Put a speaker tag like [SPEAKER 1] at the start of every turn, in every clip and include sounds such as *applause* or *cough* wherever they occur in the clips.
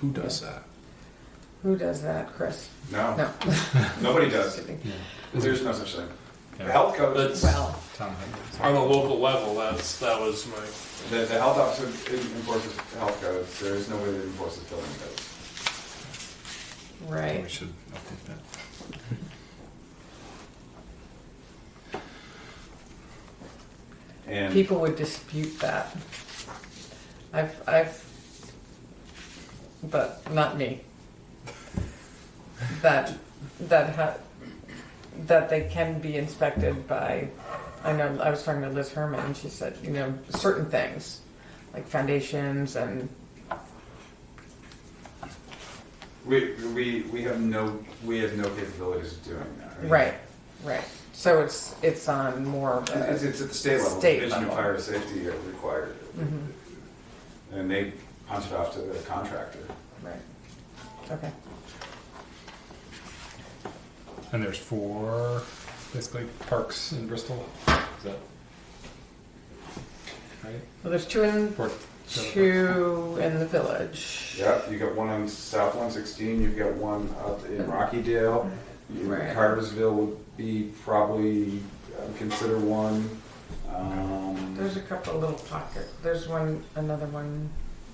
[SPEAKER 1] Who does that?
[SPEAKER 2] Who does that, Chris?
[SPEAKER 3] No,
[SPEAKER 2] *laughs* No.
[SPEAKER 3] Oh. nobody does.
[SPEAKER 2] Just kidding.
[SPEAKER 3] There's no such thing. The
[SPEAKER 4] Yeah.
[SPEAKER 3] health coach,
[SPEAKER 5] That's
[SPEAKER 2] Well,
[SPEAKER 4] Tom
[SPEAKER 5] on a local level. That's that was my
[SPEAKER 3] the, the health officer enforces health codes. There is nobody that enforces building codes.
[SPEAKER 4] Hanks. We
[SPEAKER 2] right.
[SPEAKER 4] should update that.
[SPEAKER 3] And
[SPEAKER 2] People would dispute that. I've, I've, but not me. That, that ha, that they can be inspected by, I know, I was talking to Liz Herman and she said, you know, certain things, like foundations and,
[SPEAKER 3] we, we, we have no, we have no capabilities of doing that. I mean,
[SPEAKER 2] right, right. So it's, it's on more of a.
[SPEAKER 3] It's, it's at the state level,
[SPEAKER 2] State
[SPEAKER 3] Division of
[SPEAKER 2] level.
[SPEAKER 3] Fire Safety are required.
[SPEAKER 2] Mhm.
[SPEAKER 3] And they punch it off to the contractor.
[SPEAKER 2] Right. Okay.
[SPEAKER 4] And there's four, basically, parks in Bristol. Is that right?
[SPEAKER 2] Well, there's two in
[SPEAKER 4] Four,
[SPEAKER 2] two in the village.
[SPEAKER 3] Yep, you got one on South one sixteen, you've got one up in Rockydale. You-
[SPEAKER 2] Right.
[SPEAKER 3] Cartersville would be probably, I would consider one. Um,
[SPEAKER 2] There's a couple little pocket. There's one, another one,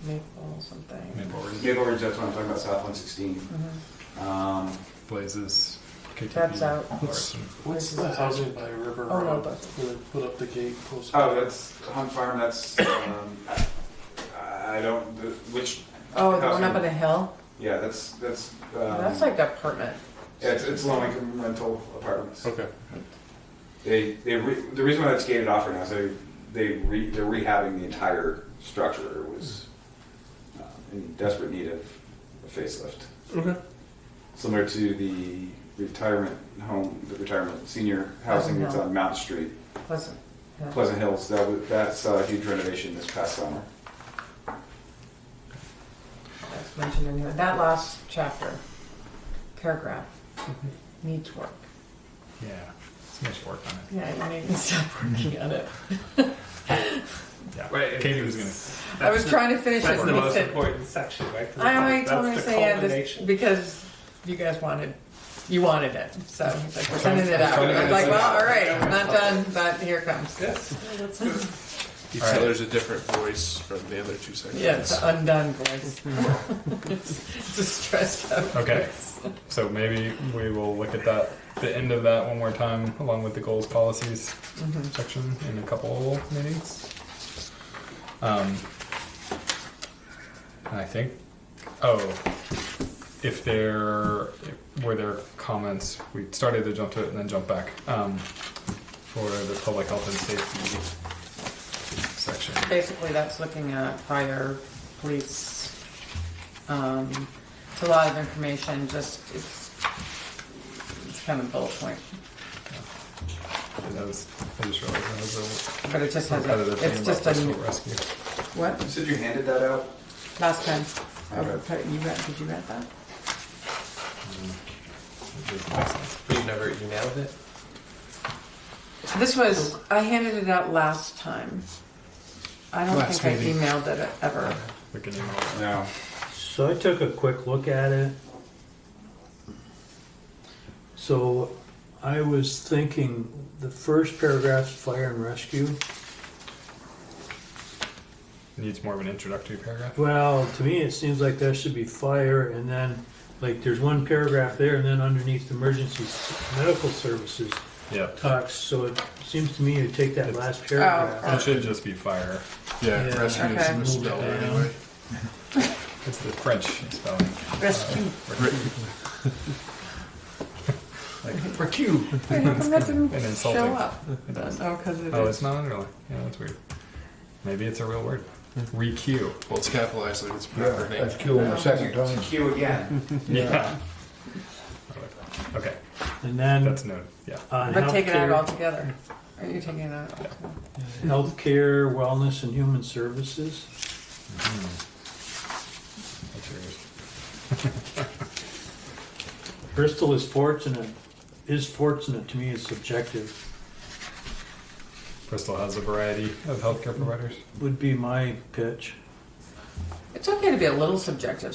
[SPEAKER 2] Maple something.
[SPEAKER 4] Maple Ridge,
[SPEAKER 3] Maple Ridge, that's what I'm talking about, South one sixteen.
[SPEAKER 2] Mm-hmm.
[SPEAKER 3] Um,
[SPEAKER 4] Blazes, KTP.
[SPEAKER 2] That's out.
[SPEAKER 4] Larson.
[SPEAKER 2] What's
[SPEAKER 5] the housing by River
[SPEAKER 2] Oh, no,
[SPEAKER 5] Road.
[SPEAKER 2] but-
[SPEAKER 5] where they put up the gate post.
[SPEAKER 3] oh, that's Hunt Farm, that's, um, I I don't, the- which,
[SPEAKER 2] Oh, the one up on the hill.
[SPEAKER 3] yeah, that's, that's,
[SPEAKER 2] That's
[SPEAKER 3] um,
[SPEAKER 2] like apartment.
[SPEAKER 3] yeah, it's, it's low income rental apartments.
[SPEAKER 4] Okay.
[SPEAKER 3] They, they, re- the reason why that's gated off right now is they, they re, they're rehabbing the entire structure. It was uh, in desperate need of a facelift.
[SPEAKER 5] Okay.
[SPEAKER 3] Similar to the retirement home, the retirement senior housing that's on Mount Street,
[SPEAKER 2] Pleasant. Hill.
[SPEAKER 3] Pleasant Hills. That was, that's a huge renovation this past summer.
[SPEAKER 2] That's mentioned in here. That last chapter, paragraph, needs work.
[SPEAKER 4] Mm-hmm. Yeah. It's much work on it.
[SPEAKER 2] Yeah, you need to stop working on it.
[SPEAKER 4] Yeah.
[SPEAKER 6] Right,
[SPEAKER 4] Katie was
[SPEAKER 6] it's-
[SPEAKER 4] gonna.
[SPEAKER 2] I was trying to finish
[SPEAKER 6] That's
[SPEAKER 2] it.
[SPEAKER 6] the
[SPEAKER 2] and he
[SPEAKER 6] most
[SPEAKER 2] said-
[SPEAKER 6] important section, right? 'Cause
[SPEAKER 2] I only
[SPEAKER 6] that's
[SPEAKER 2] told him
[SPEAKER 6] the
[SPEAKER 2] to say yeah, this
[SPEAKER 6] culmination.
[SPEAKER 2] because you guys wanted, you wanted it, so he's like, we're sending it
[SPEAKER 4] Trying-
[SPEAKER 2] out.
[SPEAKER 4] trying to
[SPEAKER 2] I was like,
[SPEAKER 4] get
[SPEAKER 2] well, all right, I'm not done, but here it comes.
[SPEAKER 6] Yes.
[SPEAKER 4] All right.
[SPEAKER 6] Alright.
[SPEAKER 4] There's
[SPEAKER 5] a different voice from the other two sections.
[SPEAKER 2] Yeah, it's uh, an undone voice. *laughs* It's a stressed out
[SPEAKER 4] Okay.
[SPEAKER 2] voice.
[SPEAKER 4] So maybe we will look at that, the end of that one more time, along with the goals policies
[SPEAKER 2] Mhm.
[SPEAKER 4] section in a couple meetings. Um, and I think, oh, if there were there comments, we started to jump to it and then jump back um, for the public health and safety section.
[SPEAKER 2] Basically, that's looking at fire, police, um, it's a lot of information, just, it's, it's kind of bullet point,
[SPEAKER 4] That was, I just realized that was
[SPEAKER 2] but it just
[SPEAKER 4] a
[SPEAKER 2] has, a-
[SPEAKER 4] repetitive
[SPEAKER 2] it's
[SPEAKER 4] thing
[SPEAKER 2] just
[SPEAKER 4] about Bristol
[SPEAKER 2] a,
[SPEAKER 4] rescue.
[SPEAKER 2] what,
[SPEAKER 3] You said you handed that out?
[SPEAKER 2] last time? Oh,
[SPEAKER 3] I read.
[SPEAKER 2] You read, did you read that?
[SPEAKER 6] You've never emailed it?
[SPEAKER 2] This was, I handed it out last time. I don't
[SPEAKER 4] Last
[SPEAKER 2] think
[SPEAKER 4] meeting.
[SPEAKER 2] I emailed it *laughs* ever.
[SPEAKER 4] We can email that.
[SPEAKER 3] No.
[SPEAKER 7] So I took a quick look at it. So I was thinking, the first paragraph's fire and rescue.
[SPEAKER 4] Needs more of an introductory paragraph.
[SPEAKER 7] Well, to me, it seems like there should be fire and then, like, there's one paragraph there and then underneath emergency s- medical services
[SPEAKER 4] Yeah.
[SPEAKER 2] Uh,
[SPEAKER 7] talks, so it seems to me you take that last
[SPEAKER 2] Oh.
[SPEAKER 7] paragraph.
[SPEAKER 4] It should just be fire.
[SPEAKER 7] Yeah, Yeah. rescue
[SPEAKER 2] is Okay.
[SPEAKER 7] misspelled anyway.
[SPEAKER 4] It's the French spelling.
[SPEAKER 2] Rescue.
[SPEAKER 4] Like,
[SPEAKER 2] Wait, how come that
[SPEAKER 4] *laughs*
[SPEAKER 2] didn't
[SPEAKER 4] And insulting.
[SPEAKER 2] show up?
[SPEAKER 4] It does.
[SPEAKER 2] Oh, because it
[SPEAKER 4] Oh,
[SPEAKER 2] is.
[SPEAKER 4] it's not underlined. Yeah, that's weird. Maybe it's a real word. Requeue.
[SPEAKER 5] Well, it's capitalized like it's a
[SPEAKER 8] Yeah,
[SPEAKER 5] proper name.
[SPEAKER 8] that's cool in the second time.
[SPEAKER 3] Q again.
[SPEAKER 4] Yeah. Okay,
[SPEAKER 7] And then
[SPEAKER 4] that's noted. Yeah.
[SPEAKER 7] on
[SPEAKER 2] But take it out
[SPEAKER 7] healthcare,
[SPEAKER 2] altogether. Are you taking it out?
[SPEAKER 7] healthcare, wellness and human services.
[SPEAKER 4] That's yours.
[SPEAKER 7] Bristol is fortunate, is fortunate, to me, is subjective.
[SPEAKER 4] Bristol has a variety of healthcare providers.
[SPEAKER 7] would be my pitch.
[SPEAKER 2] It's okay to be a little subjective